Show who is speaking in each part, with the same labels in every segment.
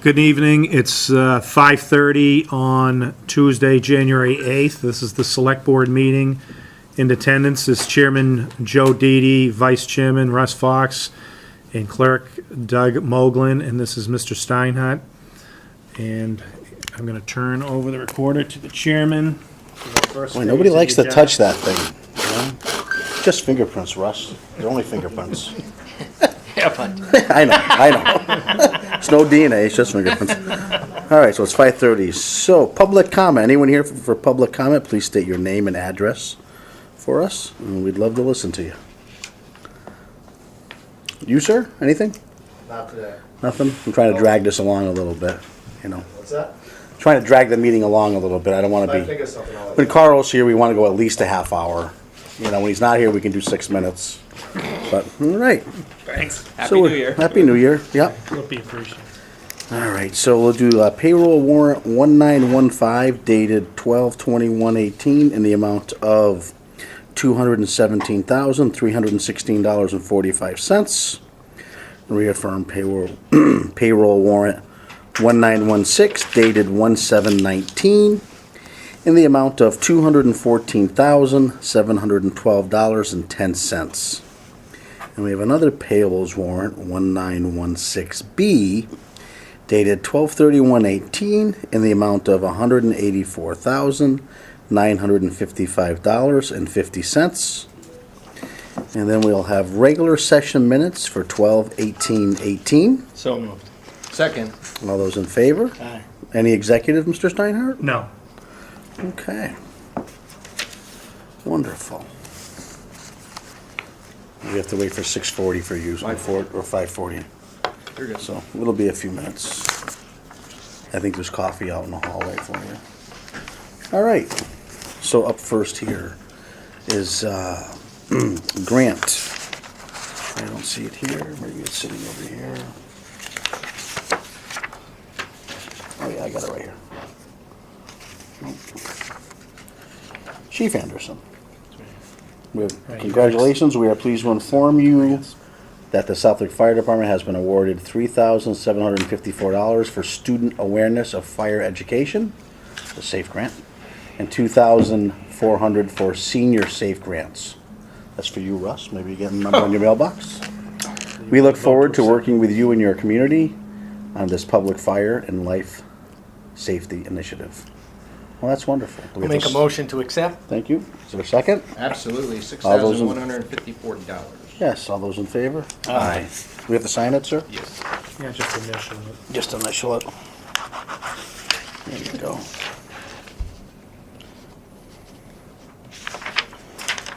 Speaker 1: Good evening. It's uh, 5:30 on Tuesday, January 8th. This is the Select Board meeting. In attendance is Chairman Joe Didi, Vice Chairman Russ Fox, and Clerk Doug Moglen, and this is Mr. Steinhardt. And I'm going to turn over the recorder to the chairman.
Speaker 2: Boy, nobody likes to touch that thing. you know? Just fingerprints, Russ. They're only fingerprints. I know, I know. It's no DNA, it's just fingerprints. All right, so it's five thirty. So, public comment. Anyone here for, for public comment, please state your name and address for us, and we'd love to listen to you. You, sir? Anything?
Speaker 3: Not today.
Speaker 2: Nothing? I'm trying to drag this along a little bit, you know.
Speaker 3: What's that?
Speaker 2: Trying to drag the meeting along a little bit. I don't want to
Speaker 3: I
Speaker 2: be.
Speaker 3: think of something all
Speaker 2: When Carl's here, we want to go at least a half hour. You know, when he's not here, we can do six minutes. But, all right.
Speaker 4: Thanks.
Speaker 2: So
Speaker 4: Happy New
Speaker 2: we're-
Speaker 4: Year.
Speaker 2: Happy New Year, yep.
Speaker 1: Would be appreciated.
Speaker 2: All right, so we'll do uh, payroll warrant 1915 dated 12/21/18 in the amount of $217,316.45. Reaffirm payroll, payroll warrant 1916 dated 17/19 in the amount of $214,712.10. And we have another payables warrant 1916B dated 12/31/18 in the amount of $184,955.50. And then we'll have regular session minutes for 12/18/18.
Speaker 4: So moved.
Speaker 3: Second.
Speaker 2: All those in favor?
Speaker 4: Aye.
Speaker 2: Any executive, Mr. Steinhardt?
Speaker 1: No.
Speaker 2: Okay. Wonderful. We have to wait for 6:40 for you, or four- or 5:40.
Speaker 4: You're good.
Speaker 2: So it'll be a few minutes. I think there's coffee out in the hallway for you. All right, so up first here is uh, Grant. I don't see it here, maybe it's sitting over here. Oh yeah, I got it right here. Nope. Chief Anderson. We
Speaker 1: Right,
Speaker 2: have-
Speaker 1: you guys.
Speaker 2: Congratulations, we are pleased to inform you that the Southwick Fire Department has been awarded three thousand seven hundred and fifty-four dollars for student awareness of fire education, the SAFE grant, and two thousand four hundred for senior SAFE grants. That's for you, Russ, maybe you get a number on your mailbox. We look forward to working with you and your community on this public fire and life safety initiative. Well, that's wonderful. Do we
Speaker 4: We'll
Speaker 2: have
Speaker 4: make a
Speaker 2: s-
Speaker 4: motion to accept.
Speaker 2: Thank you. Is there a second?
Speaker 3: Absolutely, six
Speaker 2: All those
Speaker 3: thousand
Speaker 2: in-
Speaker 3: one hundred and fifty-four dollars.
Speaker 2: Yes, all those in favor? Aye. We have to sign it, sir?
Speaker 3: Yes.
Speaker 1: Yeah, just initial. it.
Speaker 2: Just initial it. There you go.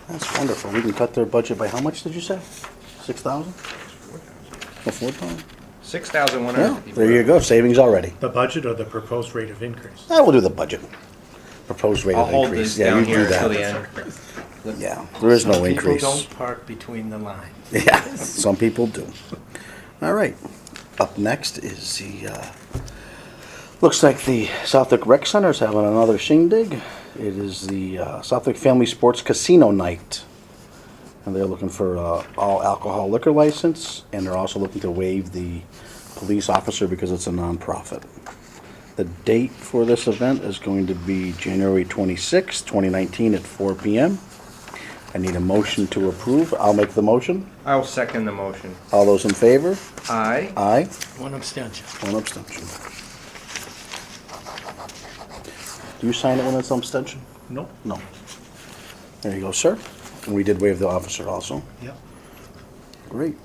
Speaker 2: That's wonderful. We can cut their budget by how much, did you say? Six thousand? Or four thousand?
Speaker 3: Six thousand one hundred and
Speaker 2: Yeah,
Speaker 3: fifty-four.
Speaker 2: there you go, savings already.
Speaker 1: The budget or the proposed rate of increase?
Speaker 2: Ah, we'll do the budget. Proposed rate
Speaker 3: I'll
Speaker 2: of
Speaker 3: hold
Speaker 2: increase.
Speaker 3: this
Speaker 2: Yeah,
Speaker 3: down
Speaker 2: you do
Speaker 3: here until the
Speaker 2: that.
Speaker 3: end.
Speaker 2: Yeah, there is no
Speaker 4: Some
Speaker 2: increase.
Speaker 4: People don't park between the lines.
Speaker 2: Yeah, some people do. All right. Up next is the, uh, looks like the Southwick Rec Center is having another shindig. It is the uh, Southwick Family Sports Casino Night. And they're looking for uh, all alcohol liquor license, and they're also looking to waive the police officer because it's a nonprofit. The date for this event is going to be January 26, 2019 at 4 p.m. I need a motion to approve. I'll make the motion.
Speaker 3: I'll second the motion.
Speaker 2: All those in favor?
Speaker 3: Aye.
Speaker 2: Aye.
Speaker 4: One abstention.
Speaker 2: One abstention. Do you sign it when it's an abstention?
Speaker 1: Nope.
Speaker 2: No. There you go, sir. And we did waive the officer also.
Speaker 1: Yep.
Speaker 2: Great.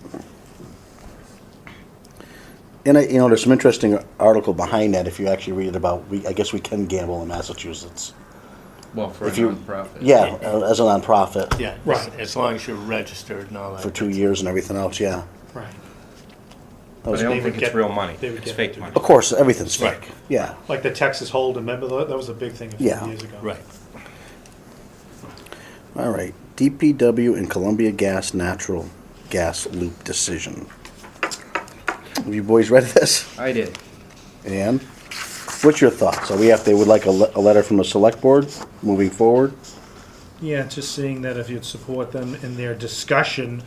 Speaker 2: And I, you know, there's some interesting article behind that if you actually read it about, we, I guess we can gamble in Massachusetts.
Speaker 3: Well, for a
Speaker 2: If you-
Speaker 3: nonprofit.
Speaker 2: Yeah, uh, as a nonprofit.
Speaker 4: Yeah,
Speaker 1: Right.
Speaker 4: right. As long as you're registered and all
Speaker 2: For
Speaker 4: that.
Speaker 2: two years and everything else, yeah.
Speaker 1: Right.
Speaker 2: That
Speaker 3: But
Speaker 2: was-
Speaker 3: I
Speaker 1: They
Speaker 3: don't
Speaker 1: would
Speaker 3: think it's
Speaker 1: get-
Speaker 3: real money.
Speaker 1: they would
Speaker 3: It's
Speaker 1: get-
Speaker 3: fake money.
Speaker 2: Of course, everything's
Speaker 4: Right.
Speaker 2: fake, yeah.
Speaker 1: Like the Texas Hold, remember that? That was a big thing a few
Speaker 2: Yeah.
Speaker 1: years ago.
Speaker 4: Right.
Speaker 2: All right, DPW and Columbia Gas Natural Gas Loop Decision. Have you boys read this?
Speaker 3: I did.
Speaker 2: And what's your thoughts? Are we have, they would like a, le- a letter from the select board moving forward?
Speaker 1: Yeah, just seeing that if you'd support them in their discussion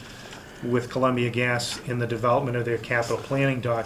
Speaker 1: with Columbia Gas in the development of their capital planning document.